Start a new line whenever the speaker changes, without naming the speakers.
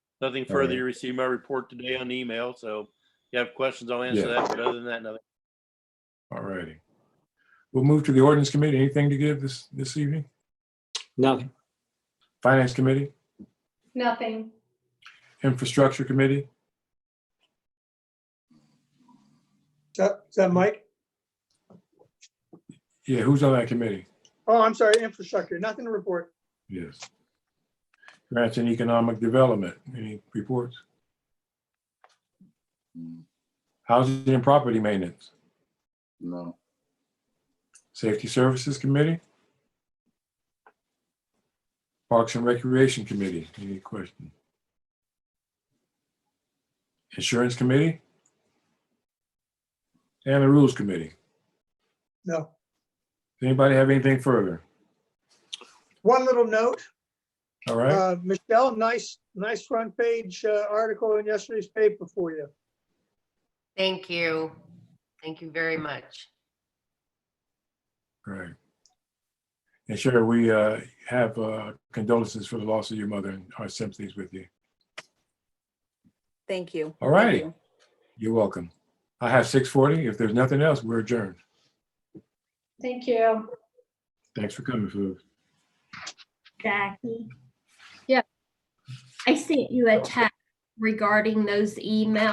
Nothing
All right.
further. You received my report today on email, so if you have questions, I'll answer
Yeah.
that. But other than that, nothing.
All righty. We'll move to the ordinance committee. Anything to give this, this evening?
Nothing.
Finance committee,
Nothing.
infrastructure committee?
Is that, is that Mike?
Yeah, who's on that committee?
Oh, I'm sorry, infrastructure, nothing to report.
Yes. Grants and economic development, any reports? Housing and property maintenance,
No,
safety services committee? Parks and recreation committee, any question? Insurance committee? And the rules committee.
No.
Does Anybody have anything further?
One little note,
All right,
uh, Michelle, nice, nice front page uh, article in yesterday's paper for you.
Thank you. Thank you very much.
all right. And Sherry, we uh, have uh, condolences for the loss of your mother and our sympathies with you.
Thank you.
All
Thank
righty.
you.
You're welcome. I have six forty. If there's nothing else, we're adjourned.
Thank you.
Thanks for coming, folks.
Jackie?
Yeah.
I sent you a text regarding those emails.